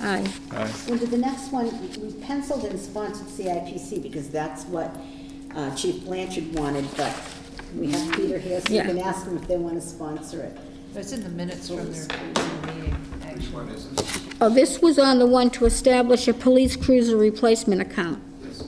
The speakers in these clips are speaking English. Aye. Aye. Under the next one, we penciled and sponsored CIPC because that's what uh, Chief Blanchard wanted, but we have Peter here, so you Yeah. can ask them if they want to sponsor it. It's in the minutes from their meeting, actually. Oh, this was on the one to establish a police cruiser replacement account. Yes,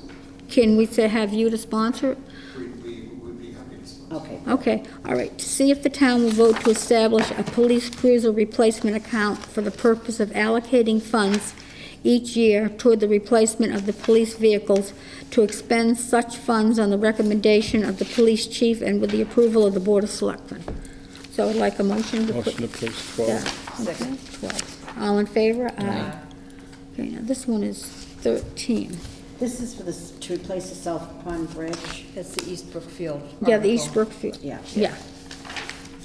Can we say, have you to sponsor it? we, we would be happy to sponsor. Okay, Okay, all right. To see if the town will vote to establish a police cruiser replacement account for the purpose of allocating funds each year toward the replacement of the police vehicles, to expend such funds on the recommendation of the police chief and with the approval of the Board of Selectmen. So I'd like a motion to put... Motion to place Yeah, 12. okay, 12. All in favor? Aye. Okay, now this one is 13. this is for this, to replace the South Pond Bridge. That's the East Brookfield. Yeah, the East article. Brookfield. Yeah. Yeah,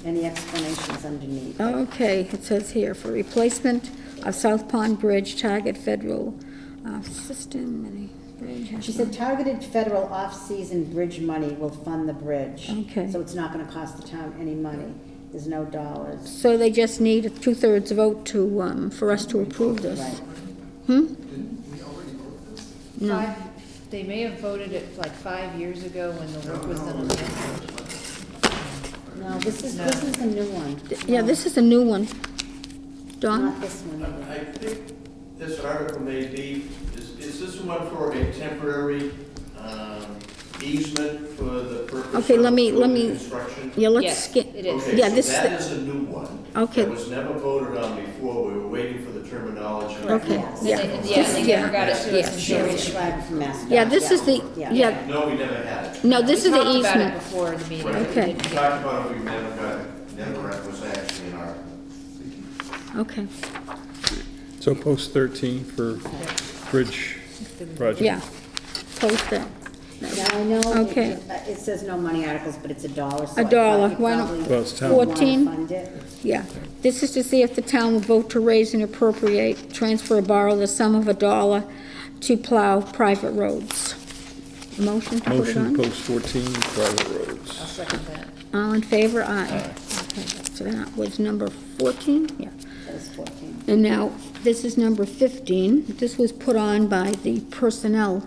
Any explanations underneath? Oh. okay, it says here, for replacement of South Pond Bridge, target federal uh, system, any bridge. She said targeted federal off-season bridge money will fund the bridge. Okay. So it's not going to cost the town any money. There's no dollars. So they just need a two-thirds vote to, um, for us to approve Right. this. Hmm? No. Five- They may have voted it like five years ago when the work was done on that. No, this is, this is a new one. Yeah, this is a new one. Not Don? this one. either. I I think this article may be, is, is this one for a temporary um, easement for the purpose of Okay, let me- let for the me- construction? Yeah, let's Yes, skip. it is. Okay, yeah, so this- that is a new one. Okay. That was never voted on before, we were waiting for the terminology. Okay, Yes. yeah. And they- Yeah, and they never got it to Yeah, us She until was we described from MassDOT. Yeah, this is the, yeah, No, we never had it. No, this we is the talked about it easement. before the meeting. Right. Okay. We talked about it, we never got it, never it was actually an article. Okay, So post 13 for bridge project. yeah. Post that. Now, I know, it- Okay. it it says no money articles, but it's a dollar, so A I dollar. thought you Why don't- probably Well, it's town. would wanna 14? fund it. Yeah, this is to see if the town will vote to raise and appropriate, transfer or borrow the sum of a dollar to plow private roads. Motion to put it Motion to on? post 14 private I'll roads. second that. All in favor, aye. Okay, So that was number 14, yeah. That was 14. And now, this is number 15. This was put on by the Personnel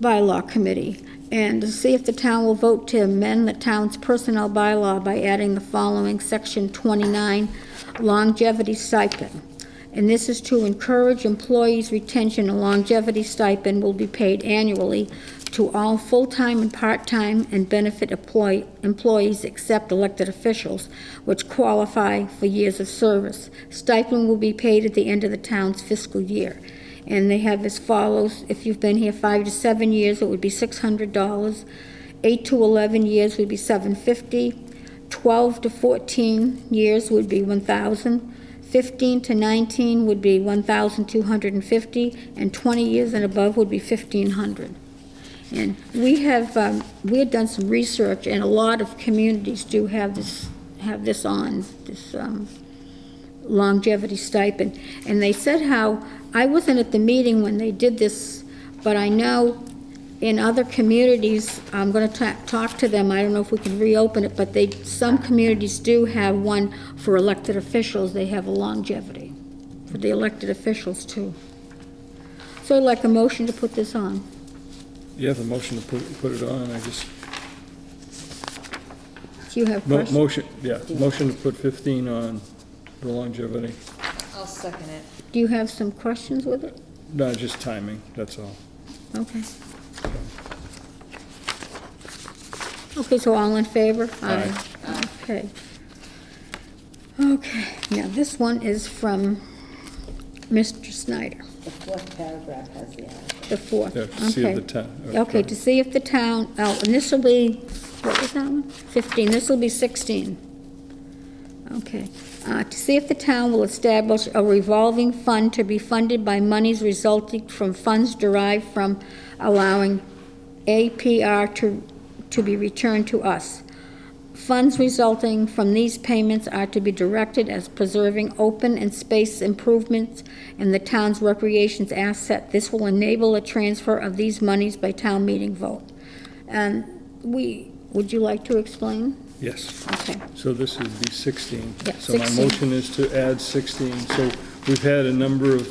Bylaw Committee. And to see if the town will vote to amend the town's personnel bylaw by adding the following Section 29 longevity stipend. And this is to encourage employees' retention. A longevity stipend will be paid annually to all full-time and part-time and benefit employ- employees except elected officials, which qualify for years of service. Stipend will be paid at the end of the town's fiscal year. And they have as follows, if you've been here five to seven years, it would be six hundred dollars. Eight to eleven years would be seven fifty. Twelve to fourteen years would be one thousand. Fifteen to nineteen would be one thousand two hundred and fifty, and twenty years and above would be fifteen hundred. And we have, um, we had done some research, and a lot of communities do have this, have this on, this um, longevity stipend. And they said how, I wasn't at the meeting when they did this, but I know in other communities, I'm going to talk to them, I don't know if we can reopen it, but they, some communities do have one for elected officials, they have a longevity for the elected officials too. So I'd like a motion to put this on. Yeah, the motion to put, put it on, I just, Do you have mo- questions? motion, yeah, motion to put 15 on the longevity. I'll second it. Do you have some questions with it? No, just timing, that's all. Okay. Okay, so all in favor? Aye. Okay. Okay, now this one is from Mr. Snyder, The fourth paragraph has the article. the fourth. Yeah, to see if Okay. the town- uh, okay. Okay, to see if the town, oh, and this will be, what was that one? Fifteen, this will be sixteen. Okay. Uh, To see if the town will establish a revolving fund to be funded by monies resulting from funds derived from allowing APR to, to be returned to us. Funds resulting from these payments are to be directed as preserving open and space improvements in the town's recreation's asset. This will enable a transfer of these monies by town meeting vote. And we, would you like to explain? Yes. Okay. So this would be 16. Yeah, So my 16. motion is to add 16. So we've had a number of